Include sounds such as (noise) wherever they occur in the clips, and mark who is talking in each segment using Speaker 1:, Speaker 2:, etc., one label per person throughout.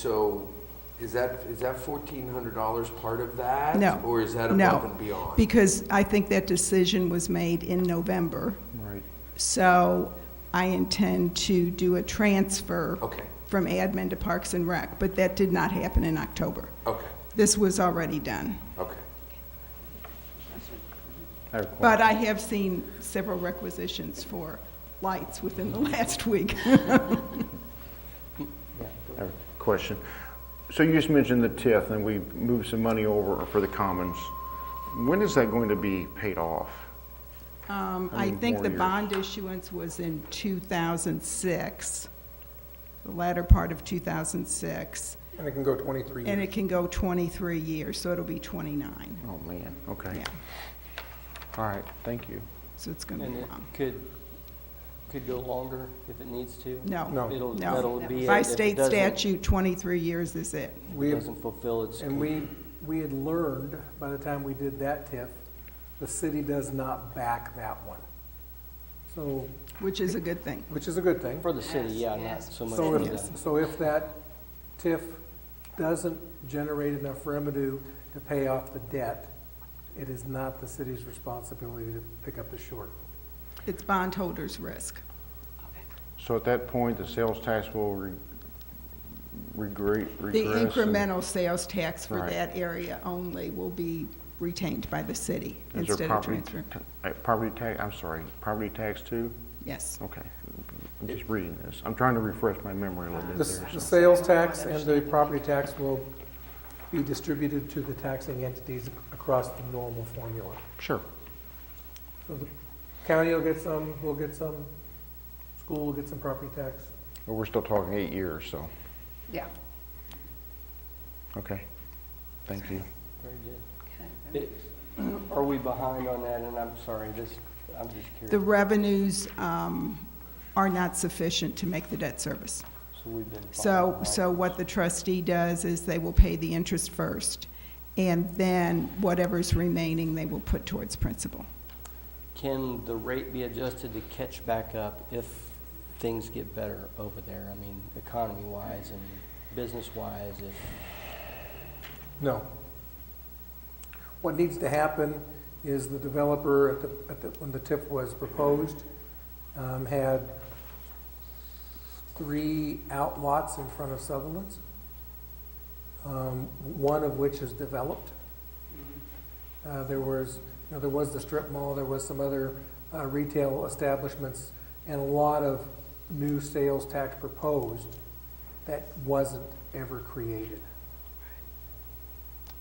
Speaker 1: So is that, is that fourteen hundred dollars part of that?
Speaker 2: No.
Speaker 1: Or is that
Speaker 2: No.
Speaker 1: above and beyond?
Speaker 2: Because I think that decision was made in November.
Speaker 3: Right.
Speaker 2: So I intend to do a transfer
Speaker 1: Okay,
Speaker 2: from admin to Parks and Rec, but that did not happen in October.
Speaker 1: okay,
Speaker 2: This was already done.
Speaker 1: okay.
Speaker 3: I have a
Speaker 2: But
Speaker 3: question.
Speaker 2: I have seen several requisitions for lights within the (laughs)
Speaker 1: (laughs)
Speaker 2: last week.
Speaker 3: I have a Question. So you just mentioned the TIF, and we moved some money over for the commons. When is that going to be paid off?
Speaker 2: Um,
Speaker 3: How
Speaker 2: I
Speaker 3: many
Speaker 2: think
Speaker 3: more
Speaker 2: the
Speaker 3: years?
Speaker 2: bond issuance was in 2006, the latter part of 2006,
Speaker 4: And it can go 23
Speaker 2: and
Speaker 4: years.
Speaker 2: it can go 23 years, so it'll be 29.
Speaker 3: Oh, man, okay.
Speaker 2: Yeah,
Speaker 3: All right, thank you.
Speaker 2: so it's going to be
Speaker 5: And it
Speaker 2: long.
Speaker 5: could, could go longer if it needs to?
Speaker 2: No,
Speaker 4: No.
Speaker 5: It'll, that'll be.
Speaker 2: no.
Speaker 5: it.
Speaker 2: By
Speaker 5: If it
Speaker 2: state
Speaker 5: doesn't-
Speaker 2: statute, 23 years is it.
Speaker 5: if
Speaker 4: We
Speaker 5: it
Speaker 4: have-
Speaker 5: doesn't fulfill its.
Speaker 4: And we, we had learned, by the time we did that TIF, the city does not back that one. So,
Speaker 2: Which is a good thing.
Speaker 4: which is a good thing.
Speaker 5: For the city,
Speaker 6: Yes,
Speaker 5: yeah, not
Speaker 6: yes.
Speaker 5: so much
Speaker 4: So
Speaker 5: for the.
Speaker 4: if, so if that TIF doesn't generate enough revenue to pay off the debt, it is not the city's responsibility to pick up the short.
Speaker 2: It's bondholders' risk.
Speaker 3: So at that point, the sales tax will re- regre-
Speaker 2: The
Speaker 3: regress? and-
Speaker 2: incremental sales tax for
Speaker 3: Right.
Speaker 2: that area only will be retained by the city
Speaker 3: Is there
Speaker 2: instead of
Speaker 3: property
Speaker 2: transferring.
Speaker 3: ta- uh, Property tax, I'm sorry, property tax too?
Speaker 2: Yes.
Speaker 3: Okay. I'm just reading this. I'm trying to refresh my memory a little bit
Speaker 4: The s-
Speaker 3: there.
Speaker 4: the
Speaker 3: so-
Speaker 4: sales tax and the property tax will be distributed to the taxing entities across the normal formula.
Speaker 3: Sure.
Speaker 4: So the county will get some, we'll get some, school will get some property tax.
Speaker 3: But we're still talking eight years, so,
Speaker 6: Yeah.
Speaker 3: okay. Thank you.
Speaker 5: Very good. It- Are we behind on that? And I'm sorry, this, I'm just
Speaker 2: The
Speaker 5: curious.
Speaker 2: revenues um, are not sufficient to make the debt service.
Speaker 5: So we've been. falling
Speaker 2: So,
Speaker 5: behind.
Speaker 2: so what the trustee does is they will pay the interest first, and then whatever's remaining, they will put towards principal.
Speaker 5: Can the rate be adjusted to catch back up if things get better over there? I mean, economy-wise and business-wise, if
Speaker 4: No. What needs to happen is the developer, at the, at the, when the TIF was proposed, um, had three outlots in front of Sutherland's, um, one of which is developed. Uh, there was, you know, there was the strip mall, there was some other, uh, retail establishments, and a lot of new sales tax proposed that wasn't ever created.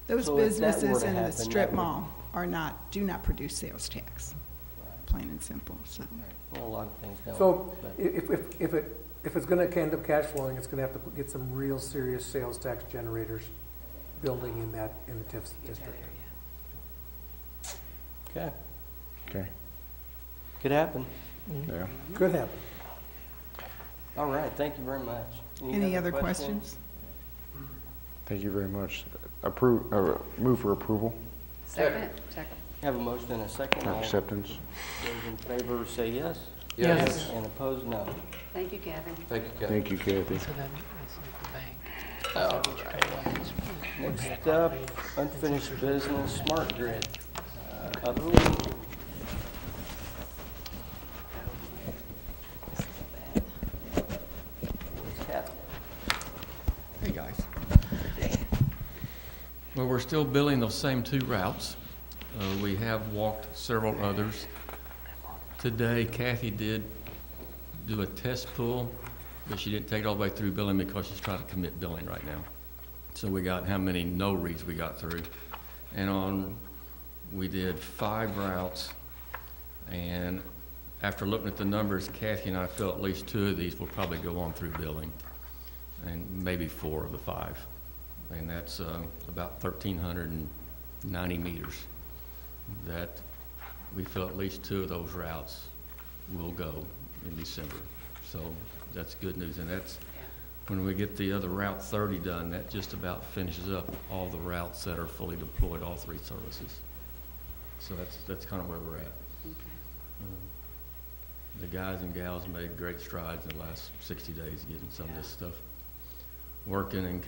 Speaker 2: Those
Speaker 5: So if that were to
Speaker 2: businesses in the
Speaker 5: happen,
Speaker 2: strip
Speaker 5: that would-
Speaker 2: mall are not, do not produce sales tax, plain and simple, so.
Speaker 5: well, a lot of things don't.
Speaker 4: So
Speaker 5: but-
Speaker 4: if, if, if it, if it's gonna end up cash flowing, it's gonna have to get some real serious sales tax generators building in that, in the TIF district.
Speaker 5: Okay,
Speaker 3: Okay,
Speaker 5: could happen.
Speaker 3: yeah.
Speaker 4: Could happen.
Speaker 5: All right, thank you very much.
Speaker 2: Any other questions?
Speaker 3: Thank you very much. Approve, uh, move for approval,
Speaker 6: Second, second.
Speaker 5: Have a motion and a second.
Speaker 3: not
Speaker 5: All
Speaker 3: acceptance.
Speaker 5: Those in favor say yes.
Speaker 1: Yes.
Speaker 5: And opposed, no.
Speaker 6: Thank you, Gavin.
Speaker 1: Thank you, Kathy.
Speaker 3: Thank you, Kathy.
Speaker 7: So then it's like the bank.
Speaker 5: Next up, unfinished business, smart grid. Uh, Upland. What's happening?
Speaker 8: Hey, guys. Well, we're still building those same two routes. Uh, We have walked several others. Today Kathy did do a test pull, but she didn't take it all the way through billing because she's trying to commit billing right now. So we got how many no reads we got through. And on, we did five routes. And after looking at the numbers, Kathy and I felt at least two of these will probably go on through billing and maybe four of the five. And that's uh, about 1,390 meters that we feel at least two of those routes will go in December. So that's good news. And that's, when we get the other Route 30 done, that just about finishes up all the routes that are fully deployed, all three services. So that's, that's kind of where we're at. The guys and gals made great strides in the last 60 days getting some of this stuff working and